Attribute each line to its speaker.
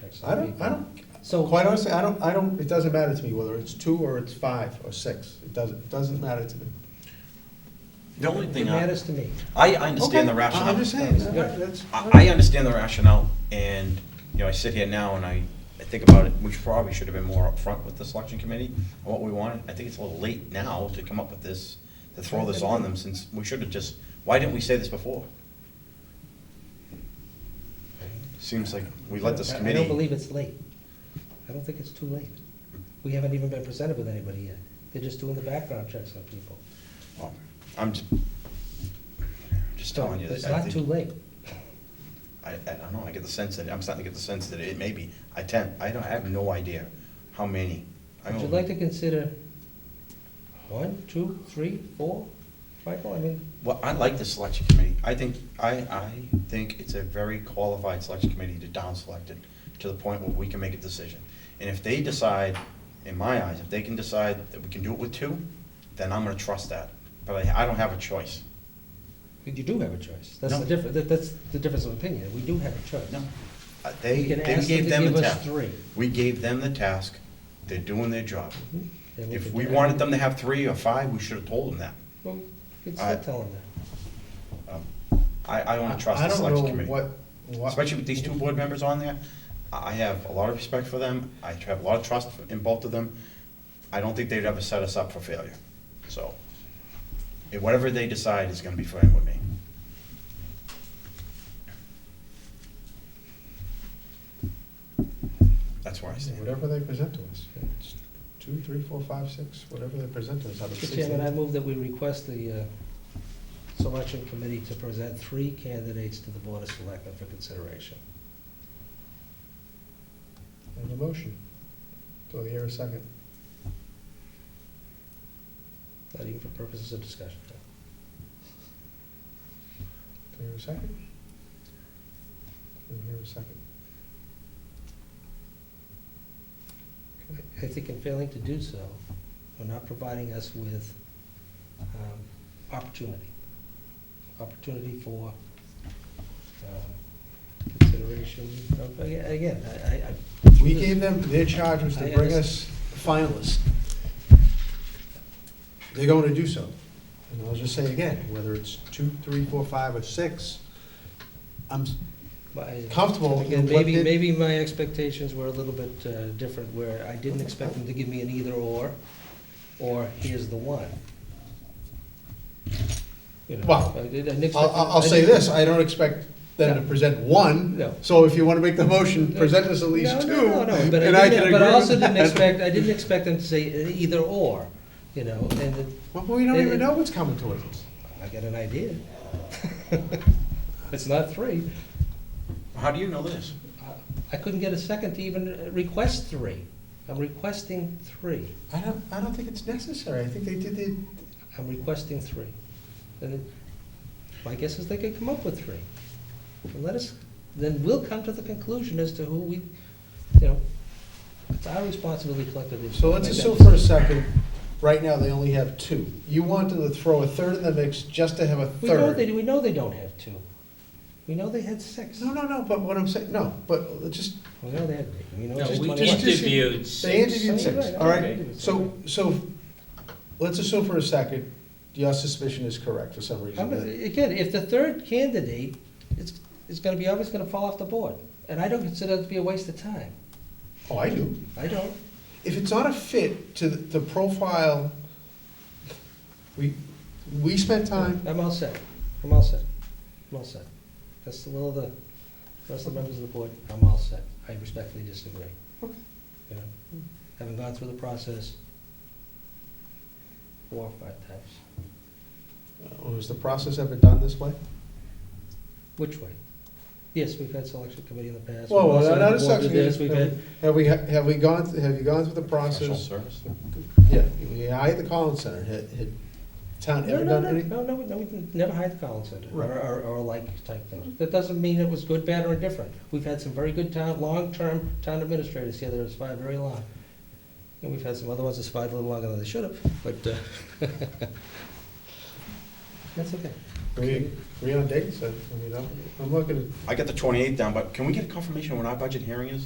Speaker 1: six.
Speaker 2: I don't, I don't,
Speaker 1: So-
Speaker 2: quite honestly, I don't, I don't, it doesn't matter to me whether it's two or it's five or six. It doesn't, it doesn't matter to me.
Speaker 3: The only
Speaker 1: It
Speaker 3: thing I,
Speaker 1: matters to me.
Speaker 3: I I understand
Speaker 2: Okay,
Speaker 3: the
Speaker 2: I-
Speaker 3: rationale.
Speaker 2: I'm just saying, that-
Speaker 1: Yeah.
Speaker 2: that's.
Speaker 3: I, I understand the rationale, and, you know, I sit here now and I, I think about it, we probably should have been more upfront with the selection committee, on what we wanted. I think it's a little late now to come up with this, to throw this on them, since we should have just, why didn't we say this before? Seems like we let this
Speaker 1: I-
Speaker 3: committee.
Speaker 1: I don't believe it's late. I don't think it's too late. We haven't even been presented with anybody yet. They're just doing the background checks on people.
Speaker 3: Well, I'm just, just
Speaker 1: So
Speaker 3: telling you
Speaker 1: it's
Speaker 3: that I
Speaker 1: not
Speaker 3: think-
Speaker 1: too late.
Speaker 3: I, I don't know, I get the sense that, I'm starting to get the sense that it may be, I ten, I don't, I have no idea how many. I
Speaker 1: Would you
Speaker 3: don't-
Speaker 1: like to consider one, two, three, four? Michael, I mean,
Speaker 3: Well, I like the selection committee. I think, I, I think it's a very qualified selection committee to down-select it to the point where we can make a decision. And if they decide, in my eyes, if they can decide that we can do it with two, then I'm gonna trust that. But I, I don't have a choice.
Speaker 1: you do have a choice. That's
Speaker 3: No.
Speaker 1: the difference, that, that's the difference of opinion. We do have a choice.
Speaker 3: No. Uh, They,
Speaker 1: We can
Speaker 3: they
Speaker 1: ask
Speaker 3: gave
Speaker 1: them
Speaker 3: them
Speaker 1: to
Speaker 3: the
Speaker 1: give us
Speaker 3: task.
Speaker 1: three.
Speaker 3: We gave them the task. They're doing their job.
Speaker 1: Mhm. Then
Speaker 3: If
Speaker 1: can
Speaker 3: we
Speaker 1: try.
Speaker 3: wanted them to have three or five, we should have told them that.
Speaker 1: Well, you can
Speaker 3: I-
Speaker 1: still tell them that.
Speaker 3: Um, I, I don't trust the selection committee.
Speaker 2: I don't know what, what,
Speaker 3: especially with these two board members on there, I I have a lot of respect for them, I have a lot of trust in both of them. I don't think they'd ever set us up for failure, so, eh, whatever they decide is gonna be fine with me. That's where I stand.
Speaker 2: whatever they present to us. It's Two, three, four, five, six, whatever they present to us. out of
Speaker 1: Mr.
Speaker 2: six
Speaker 1: Chairman, I
Speaker 2: names.
Speaker 1: move that we request the uh, selection committee to present three candidates to the Board of Selectmen for consideration.
Speaker 2: And the motion. Do I hear a second?
Speaker 1: Not even for purposes of discussion.
Speaker 2: Do I hear a second? Do I hear a second? Okay.
Speaker 1: I think in failing to do so, we're not providing us with um, opportunity. Opportunity for um, consideration. of- Again, I- I, I.
Speaker 2: We gave them, their charge was to
Speaker 1: I
Speaker 2: bring us finalists. They're going to do so. And I'll just say again, whether it's two, three, four, five, or six, I'm, s-
Speaker 1: my-
Speaker 2: Comfortable
Speaker 1: Again,
Speaker 2: with what
Speaker 1: maybe,
Speaker 2: they-
Speaker 1: maybe my expectations were a little bit uh, different, where I didn't expect them to give me an either-or, or here's the one. You know,
Speaker 2: Well,
Speaker 1: I did- I didn't
Speaker 2: I'll,
Speaker 1: expect-
Speaker 2: I'll I'll
Speaker 1: I
Speaker 2: say
Speaker 1: didn't-
Speaker 2: this, I don't expect them to
Speaker 1: No.
Speaker 2: present one.
Speaker 1: No.
Speaker 2: So if you want to make the motion,
Speaker 1: No.
Speaker 2: present us at least
Speaker 1: No,
Speaker 2: two.
Speaker 1: No, no, no, but I
Speaker 2: and I
Speaker 1: didn't-
Speaker 2: can
Speaker 1: but I
Speaker 2: agree
Speaker 1: also
Speaker 2: with
Speaker 1: didn't
Speaker 2: that.
Speaker 1: expect, I didn't expect them to say either-or, you know, and then
Speaker 2: Well, we don't
Speaker 1: It-
Speaker 2: even know what's coming to us.
Speaker 1: I got an idea. It's not three.
Speaker 3: How do you know this?
Speaker 1: I couldn't get a second to even request three. I'm requesting three.
Speaker 2: I don't, I don't think it's necessary, I think they did the,
Speaker 1: I'm requesting three. And then my guess is they could come up with three. And let us, then we'll come to the conclusion as to who we, you know, it's our responsibility collectively. to
Speaker 2: So let's
Speaker 1: make that
Speaker 2: assume
Speaker 1: decision.
Speaker 2: for a second, right now, they only have two. You wanted to throw a third in the mix just to have a
Speaker 1: We know they,
Speaker 2: third.
Speaker 1: we know they don't have two. We know they had six.
Speaker 2: No, no, no, but what I'm saying, no, but let's just,
Speaker 1: We know they had eight. We know
Speaker 4: No,
Speaker 1: it's
Speaker 2: Just-
Speaker 4: we
Speaker 2: just-
Speaker 1: 21.
Speaker 2: just-
Speaker 4: interviewed
Speaker 2: they
Speaker 4: six.
Speaker 2: interviewed
Speaker 1: Six.
Speaker 2: six, all right?
Speaker 1: Okay.
Speaker 2: So, so, let's assume for a second, your suspicion is correct for some
Speaker 1: I'm gonna-
Speaker 2: reason.
Speaker 1: Again, if the third candidate is, is gonna be, always gonna fall off the board, and I don't consider it to be a waste of time.
Speaker 2: Oh, I do.
Speaker 1: I don't.
Speaker 2: If it's not a fit to the the profile, we, we spent time,
Speaker 1: I'm all set. I'm all set. I'm all set. That's the will of the rest of the members of the board. I'm all set. I respectfully disagree.
Speaker 2: Okay.
Speaker 1: You know, Having gone through the process four or five times.
Speaker 2: was the process ever done this way?
Speaker 1: Which way? Yes, we've had selection committee in the past.
Speaker 2: Well,
Speaker 1: We've also
Speaker 2: well,
Speaker 1: had
Speaker 2: not a
Speaker 1: the board do
Speaker 2: section.
Speaker 1: this. We've had,
Speaker 2: Have we, have we gone, have you gone through the
Speaker 3: Professional
Speaker 2: process?
Speaker 3: service?
Speaker 2: Yeah, we hired the Collins Center, had, had town
Speaker 1: no,
Speaker 2: ever
Speaker 1: no,
Speaker 2: done
Speaker 1: no,
Speaker 2: any?
Speaker 1: no, no, no, we didn't- never hired the Collins Center or,
Speaker 2: Right.
Speaker 1: or- or like type thing. That doesn't mean it was good, bad, or indifferent. We've had some very good town, long-term town administrators here that have survived very long. And we've had some other ones that survived a little longer than they should have, but, uh, that's okay.
Speaker 2: We agree on dates, I I mean, I'm, I'm looking at
Speaker 3: I got the twenty-eighth down, but can we get confirmation when our budget hearing is?